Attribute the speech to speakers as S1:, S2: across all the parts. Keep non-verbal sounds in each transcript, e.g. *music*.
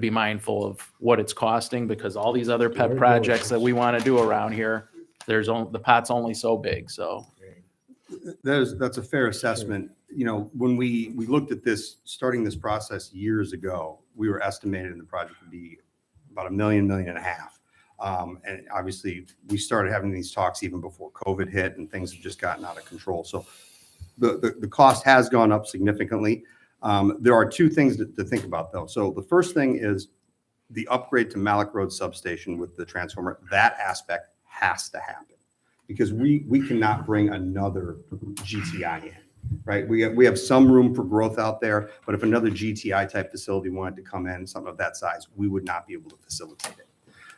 S1: be mindful of what it's costing because all these other pet projects that we want to do around here, there's only, the pot's only so big, so.
S2: That is, that's a fair assessment. You know, when we, we looked at this, starting this process years ago, we were estimated in the project would be about a million, million and a half. Um, and obviously, we started having these talks even before COVID hit and things have just gotten out of control. So the, the, the cost has gone up significantly. Um, there are two things to, to think about though. So the first thing is the upgrade to Malik Road Substation with the transformer, that aspect has to happen because we, we cannot bring another GTI in, right? We have, we have some room for growth out there, but if another GTI type facility wanted to come in, something of that size, we would not be able to facilitate it.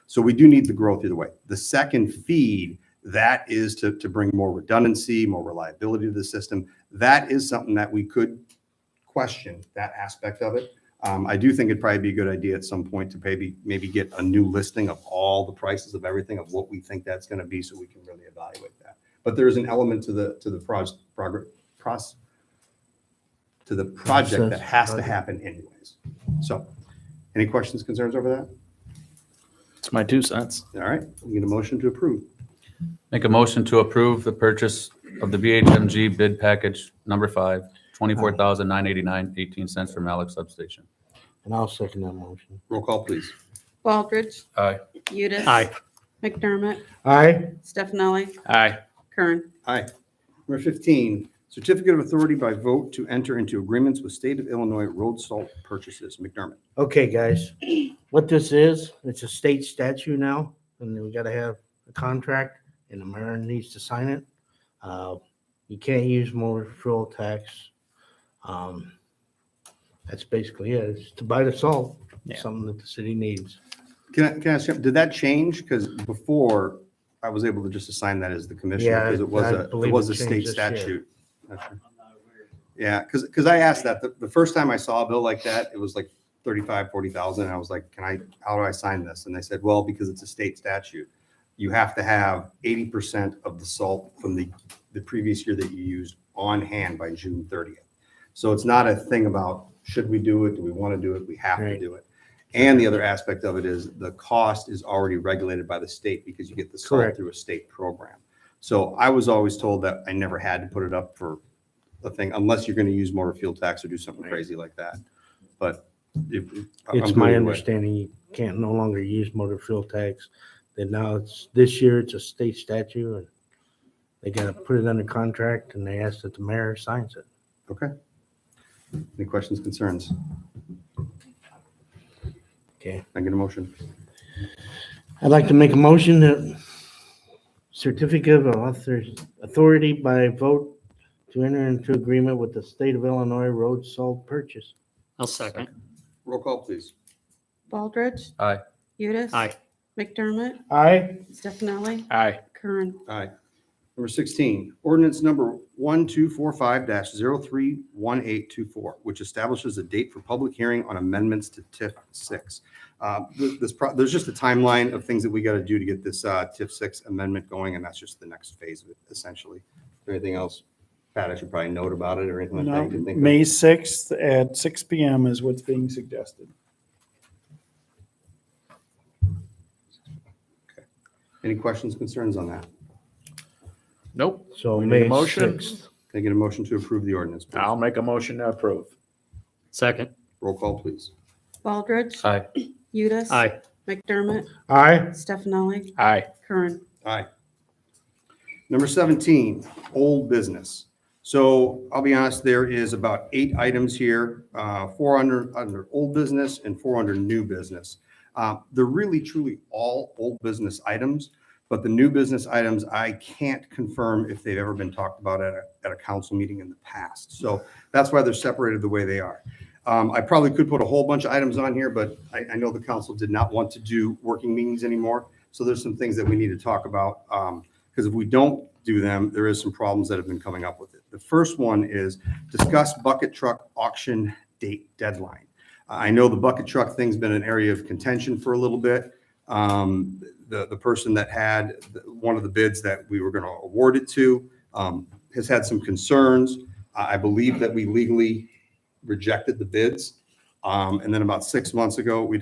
S2: So we do need the growth either way. The second feed, that is to, to bring more redundancy, more reliability to the system. That is something that we could question, that aspect of it. Um, I do think it'd probably be a good idea at some point to maybe, maybe get a new listing of all the prices of everything of what we think that's going to be so we can really evaluate that. But there is an element to the, to the proj, progr, pros, to the project that
S3: Process,
S2: has to
S3: project.
S2: happen anyways. So, any questions, concerns over that?
S1: It's my two cents.
S2: All right, we get a motion to approve.
S4: Make a motion to approve the purchase of the BHMG bid package number five, twenty-four thousand nine eighty-nine, eighteen cents from Alex Substation.
S3: And I'll second that motion.
S2: Roll call, please.
S5: Baldridge.
S4: Aye.
S5: Udis. McDermott.
S3: Aye,
S5: Stefani.
S1: Aye.
S5: Kern.
S2: Aye. Number 15, certificate of authority by vote to enter into agreements with state of Illinois road salt purchases. McDermott.
S3: okay, *clears throat* guys. What this is, it's a state statute now, and we gotta have a contract, and the mayor needs to sign it. Uh, You can't use motor fuel tax. Um, That's basically it, it's to buy the salt,
S1: Yeah.
S3: something that the city needs.
S2: Can I, can I ask, you, did that change? Because before, I was able to just assign that as the commissioner
S3: Yeah,
S2: because it was
S3: I
S2: a, it
S3: believe
S2: was
S3: it
S2: a state
S3: changed this year.
S2: statute. Okay. Yeah, because, because I asked that, the, the first time I saw a bill like that, it was like 35, 40,000. And I was like, can I, how do I sign this? And they said, well, because it's a state statute, you have to have 80% of the salt from the, the previous year that you used on hand by June 30th. So it's not a thing about, should we do it? Do we want to do it? We have to
S3: Right.
S2: do it. And the other aspect of it is the cost is already regulated by the state because you get the salt
S3: Correct.
S2: through a state program. So I was always told that I never had to put it up for the thing unless you're going to use motor fuel tax or do something crazy like that. But if. I'm
S3: It's
S2: good
S3: my
S2: either way.
S3: understanding you can't no longer use motor fuel tax. Then now it's, this year it's a state statute and they gotta put it under contract and they ask that the mayor signs it.
S2: Okay. Any questions, concerns?
S3: Okay.
S2: I get a motion.
S3: I'd like to make a motion that certificate of author, authority by vote to enter into agreement with the state of Illinois road salt purchase.
S6: I'll second.
S2: Roll call, please.
S5: Baldridge.
S4: Aye.
S5: Udis.
S6: Aye.
S5: McDermott.
S3: Aye.
S5: Stefani.
S1: Aye.
S5: Kern.
S2: Aye. Number 16, ordinance number 1245-031824, which establishes a date for public hearing on amendments to TIF 6. Uh, th- This, pro- there's just a timeline of things that we got to do to get this uh, TIF 6 amendment going, and that's just the next phase of it, essentially. Anything else, Pat, I should probably note about it or anything like that?
S7: No,
S2: you can think of?
S7: May 6th at six PM is what's being suggested.
S2: Any questions, concerns on that?
S1: Nope.
S3: So
S1: We need a
S3: May
S1: motion?
S3: sixth.
S2: Can I get a motion to approve the ordinance? please?
S1: I'll make a motion to approve.
S6: Second.
S2: Roll call, please.
S5: Baldridge.
S4: Aye.
S5: Udis.
S6: Aye.
S5: McDermott.
S3: Aye.
S5: Stefani.
S1: Aye.
S5: Kern.
S2: Aye. Number 17, old business. So I'll be honest, there is about eight items here, uh, four under, under old business and four under new business. Uh, They're really truly all old business items, but the new business items, I can't confirm if they've ever been talked about at a, at a council meeting in the past. So that's why they're separated the way they are. Um, I probably could put a whole bunch of items on here, but I, I know the council did not want to do working meetings anymore. So there's some things that we need to talk about, because if we don't do them, there is some problems that have been coming up with it. The first one is discuss bucket truck auction date deadline. I know the bucket truck thing's been an area of contention for a little bit. Um, The, the person that had the- one of the bids that we were going to award it to um, has had some concerns. I I believe that we legally rejected the bids. Um, And then about six months ago, we